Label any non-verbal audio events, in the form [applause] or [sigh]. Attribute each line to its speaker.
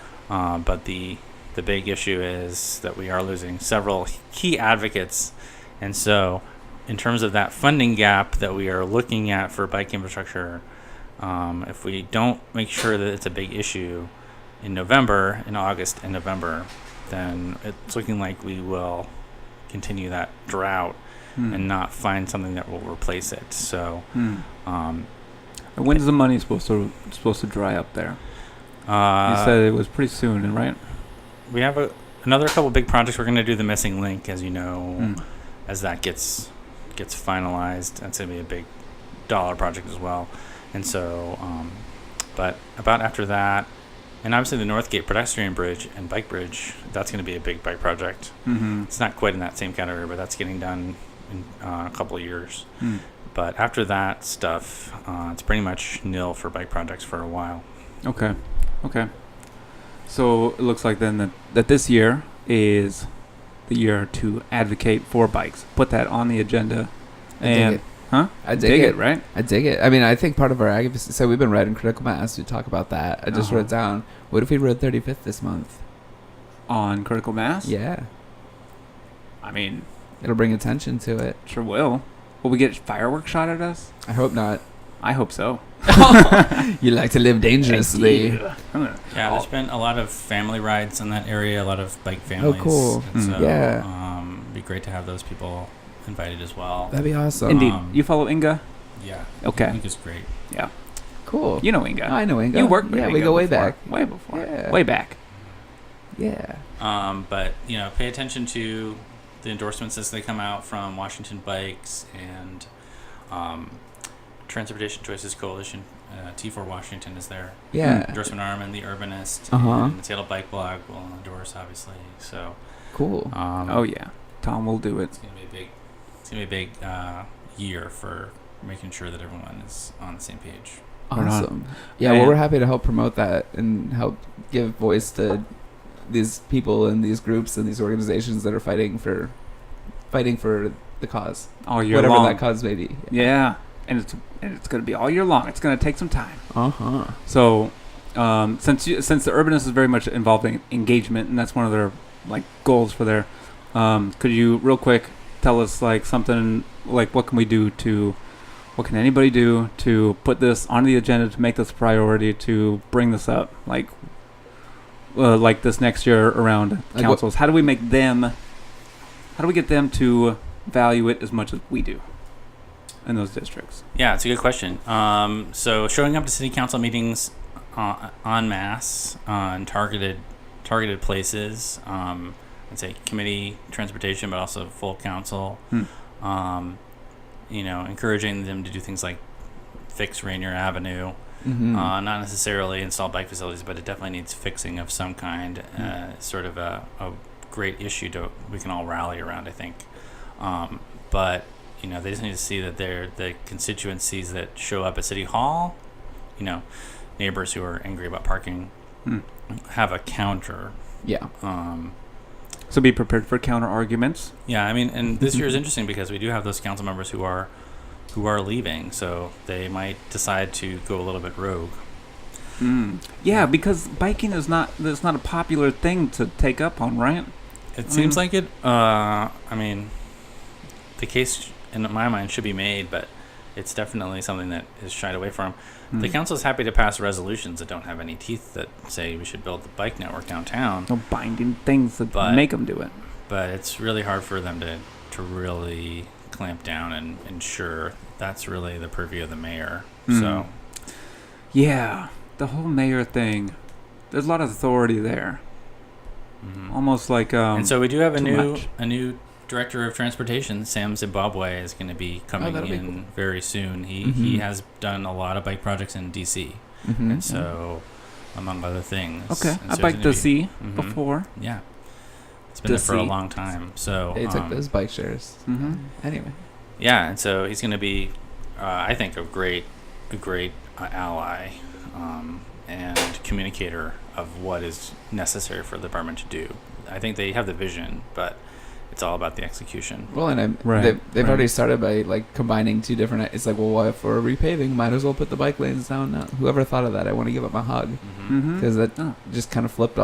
Speaker 1: Uh, but the the big issue is that we are losing several key advocates, and so in terms of that funding gap that we are looking at for bike infrastructure, um, if we don't make sure that it's a big issue in November, in August, and November, then it's looking like we will continue that drought
Speaker 2: Hmm.
Speaker 1: and not find something that will replace it. So,
Speaker 2: Hmm.
Speaker 1: um,
Speaker 2: And When's the money supposed to supposed to dry up there?
Speaker 1: uh,
Speaker 2: You said it was pretty soon, right?
Speaker 1: we have a, another couple big projects. We're going to do the missing link, as you know,
Speaker 2: Hmm.
Speaker 1: as that gets gets finalized. That's going to be a big dollar project as well. And so, um, but about after that, and obviously the Northgate pedestrian bridge and bike bridge. That's going to be a big bike project.
Speaker 2: Mm-hmm.
Speaker 1: It's not quite in that same category, but that's getting done in uh, a couple of years.
Speaker 2: Hmm.
Speaker 1: But after that stuff, uh, it's pretty much nil for bike projects for a while.
Speaker 2: Okay. Okay. So it looks like then that, that this year is the year to advocate for bikes. Put that on the agenda.
Speaker 3: I dig
Speaker 2: And
Speaker 3: it.
Speaker 2: huh?
Speaker 3: I dig,
Speaker 2: Dig
Speaker 3: it.
Speaker 2: it, right?
Speaker 3: I dig it. I mean, I think part of our advocacy. So we've been writing critical mass to talk about that. I just
Speaker 2: Uh-huh.
Speaker 3: wrote down. What if we rode 35th this month?
Speaker 2: On critical mass.
Speaker 3: Yeah,
Speaker 2: I mean,
Speaker 3: it'll bring attention to it.
Speaker 2: sure will. Will we get fireworks shot at us?
Speaker 3: I
Speaker 2: [laughs]
Speaker 3: hope not.
Speaker 2: I hope so.
Speaker 3: you like to live dangerously.
Speaker 2: Yeah. Huh.
Speaker 1: Yeah,
Speaker 2: Oh.
Speaker 1: there's been a lot of family rides in that area, a lot of bike families.
Speaker 3: Oh, cool.
Speaker 1: And
Speaker 2: Hmm.
Speaker 1: so,
Speaker 3: Yeah.
Speaker 1: Um, it'd be great to have those people invited as well.
Speaker 3: That'd be awesome.
Speaker 2: Indeed.
Speaker 1: Um,
Speaker 2: you follow Inga?
Speaker 1: yeah. I
Speaker 2: Okay.
Speaker 1: think it's great.
Speaker 3: cool.
Speaker 2: You know Inga.
Speaker 3: I know Uh, Inga.
Speaker 2: You worked with
Speaker 3: Yeah,
Speaker 2: Inga
Speaker 3: we go way
Speaker 2: before.
Speaker 3: back.
Speaker 2: Way before.
Speaker 3: Yeah.
Speaker 2: Way Hmm. back.
Speaker 3: Yeah.
Speaker 1: Um, but, you know, pay attention to the endorsements as they come out from Washington Bikes and um, Transportation Choices Coalition. Uh, T4 Washington is their
Speaker 3: Yeah.
Speaker 1: endorsement arm, and the Urbanist
Speaker 3: Uh-huh.
Speaker 1: and the Seattle Bike Blog will endorse, obviously. So,
Speaker 3: Cool.
Speaker 1: um,
Speaker 2: Oh yeah. Tom will do it.
Speaker 1: It's gonna be a big. It's gonna be a big uh, year for making sure that everyone is on the same page.
Speaker 2: Or not.
Speaker 3: Awesome. Yeah, well,
Speaker 2: And-
Speaker 3: we're happy to help promote that and help give voice to these people and these groups and these organizations that are fighting for fighting for the cause,
Speaker 2: All year
Speaker 3: whatever
Speaker 2: long.
Speaker 3: that cause may be.
Speaker 2: Yeah, and it's and it's gonna be all year long. It's gonna take some time.
Speaker 3: Uh
Speaker 2: Uh-huh.
Speaker 3: huh.
Speaker 2: So, um, since you, since the Urbanist is very much involved in engagement, and that's one of their like goals for their, um, could you real quick tell us like something like what can we do to, what can anybody do to put this on the agenda to make this a priority to bring this up like. Uh, like this next year around
Speaker 3: what-
Speaker 2: councils, how do we make them? How do we get them to value it as much as we do in those districts?
Speaker 1: Yeah, it's a good question. Um, so showing up to city council meetings uh, en masse on targeted targeted places. Um, I'd say committee transportation, but also full council.
Speaker 2: Hmm.
Speaker 1: Um, you know, encouraging them to do things like fix Rainier Avenue.
Speaker 3: Mm-hmm.
Speaker 1: Uh, not necessarily install bike facilities, but it definitely needs fixing of some kind. Uh, sort of a, a great issue to we can all rally around, I think. Um, but you know, they just need to see that they're the constituencies that show up at City Hall. You know, neighbors who are angry about parking
Speaker 2: Hmm.
Speaker 1: have a counter.
Speaker 3: yeah.
Speaker 1: Um,
Speaker 2: So be prepared for counter arguments.
Speaker 1: yeah, I mean, and this year is interesting because we do have those council members who are who are leaving, so they might decide to go a little bit rogue.
Speaker 2: Mm. Yeah, because biking is not it's not a popular thing to take up on, right?
Speaker 1: It
Speaker 2: I
Speaker 1: seems
Speaker 2: mean-
Speaker 1: like it. Uh, I mean, the case in my mind should be made, but it's definitely something that is shied away from. The
Speaker 2: Mm.
Speaker 1: council is happy to pass resolutions that don't have any teeth that say we should build the bike network downtown,
Speaker 2: No binding things that
Speaker 1: But-
Speaker 2: make them do it.
Speaker 1: but it's really hard for them to, to really clamp down and ensure that's really the purview of the mayor. So,
Speaker 2: Mm. Yeah, the whole mayor thing. There's a lot of authority there,
Speaker 1: mhm.
Speaker 2: almost like um.
Speaker 1: and so we do have a
Speaker 2: too
Speaker 1: new
Speaker 2: much.
Speaker 1: a new director of transportation. Sam Zimbabwe is going to be coming
Speaker 3: Oh, that'll
Speaker 1: in
Speaker 3: be cool.
Speaker 1: very soon. He he
Speaker 3: Mhm.
Speaker 2: Mm-hmm.
Speaker 1: has done a lot of bike projects in DC,
Speaker 3: Mm-hmm.
Speaker 1: and so among other things.
Speaker 2: okay,
Speaker 1: And
Speaker 2: I
Speaker 1: so
Speaker 2: biked
Speaker 1: it's gonna
Speaker 2: to
Speaker 1: be-
Speaker 2: see
Speaker 1: Mhm.
Speaker 2: before.
Speaker 1: Yeah, it's been there for a
Speaker 2: DC.
Speaker 1: long time. So
Speaker 3: They took
Speaker 1: um,
Speaker 3: those bike shares.
Speaker 2: Mhm.
Speaker 3: Anyway.
Speaker 1: Yeah, and so he's going to be, uh, I think, a great, a great uh, ally um, and communicator of what is necessary for the department to do. I think they have the vision, but it's all about the execution.
Speaker 3: Well, and I'm,
Speaker 2: Right,
Speaker 3: they've, they've
Speaker 2: right.
Speaker 3: already started by like combining two different. It's like, well, why if we're repaving, might as well put the bike lanes down now. Whoever thought of that, I want to give them a hug
Speaker 1: Mhm.
Speaker 2: Mm-hmm.
Speaker 3: because that
Speaker 2: Oh.
Speaker 3: just kind of flipped